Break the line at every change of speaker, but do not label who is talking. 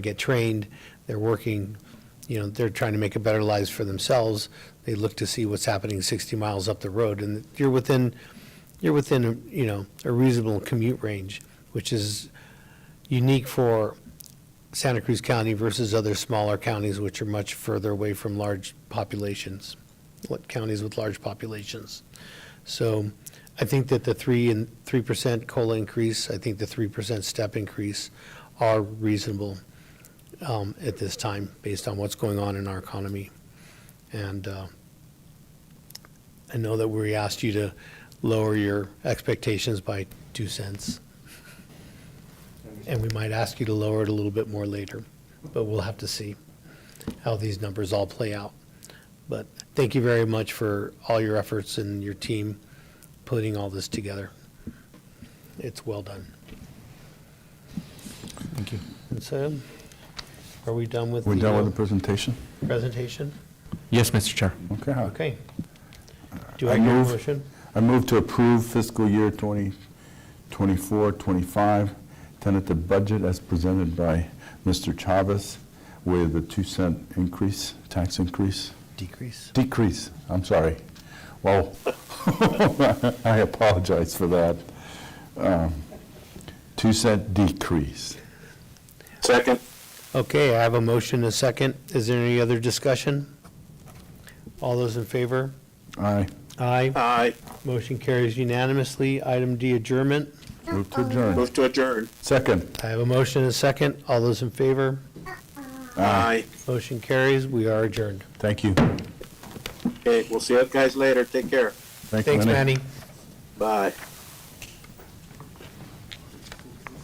get trained, they're working, you know, they're trying to make a better lives for themselves. They look to see what's happening 60 miles up the road, and you're within, you're within, you know, a reasonable commute range, which is unique for Santa Cruz County versus other smaller counties, which are much further away from large populations, what counties with large populations. So I think that the three and, 3% COLA increase, I think the 3% step increase are reasonable um, at this time, based on what's going on in our economy. And uh, I know that we asked you to lower your expectations by 2 cents, and we might ask you to lower it a little bit more later, but we'll have to see how these numbers all play out. But thank you very much for all your efforts and your team putting all this together. It's well done.
Thank you.
And so, are we done with?
We're done with the presentation?
the presentation?
Yes, Mr. Chair.
Okay.
Okay. Do
I
I hear a
move-
motion?
I move to approve fiscal year 2024, 25 tentative budget as presented by Mr. Chavez with a 2 cent increase, tax increase,
Decrease.
decrease, I'm sorry. Well, I apologize for that. Um, 2 cent decrease.
Second.
Okay, I have a motion, a second. Is there any other discussion? All those in favor?
Aye.
Aye.
Aye.
Motion carries unanimously. Item D, adjournment.
Move to adjourn.
Move to adjourn.
Second.
I have a motion, a second. All those in favor?
Aye.
Motion carries. We are adjourned.
Thank you.
Okay, we'll see you guys later. Take care.
Thanks, Manny.
Bye.